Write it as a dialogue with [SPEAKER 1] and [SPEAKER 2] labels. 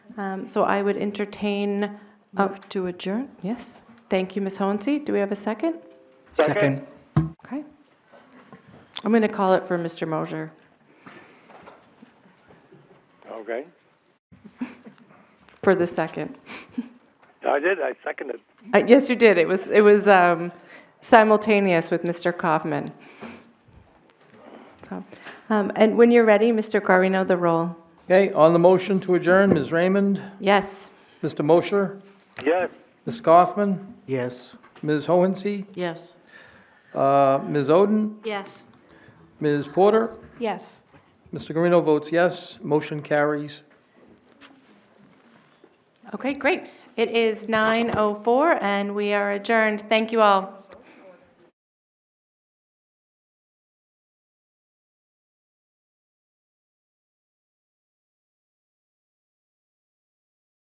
[SPEAKER 1] Um, So I would entertain, a-
[SPEAKER 2] Move to adjourn?
[SPEAKER 1] yes, thank you, Ms. Hohensee. Do we have a second?
[SPEAKER 3] Second.
[SPEAKER 1] Okay. I'm going to call it for Mr. Mosher.
[SPEAKER 3] Okay.
[SPEAKER 1] for the second.
[SPEAKER 3] I did, I seconded.
[SPEAKER 1] Uh, Yes, you did. It was, it was um, simultaneous with Mr. Kaufman. So, um, And when you're ready, Mr. Guarino, the roll.
[SPEAKER 4] Okay, on the motion to adjourn, Ms. Raymond,
[SPEAKER 1] Yes.
[SPEAKER 4] Mr. Mosher,
[SPEAKER 3] Yes,
[SPEAKER 4] Ms. Kaufman,
[SPEAKER 5] Yes.
[SPEAKER 4] Ms. Hohensie,
[SPEAKER 2] Yes.
[SPEAKER 4] uh, Ms. Oden,
[SPEAKER 1] Yes.
[SPEAKER 4] Ms. Porter.
[SPEAKER 2] Yes.
[SPEAKER 4] Mr. Guarino votes yes, motion carries.
[SPEAKER 1] oh Okay, great. It is 9:04, and we are adjourned. Thank you all.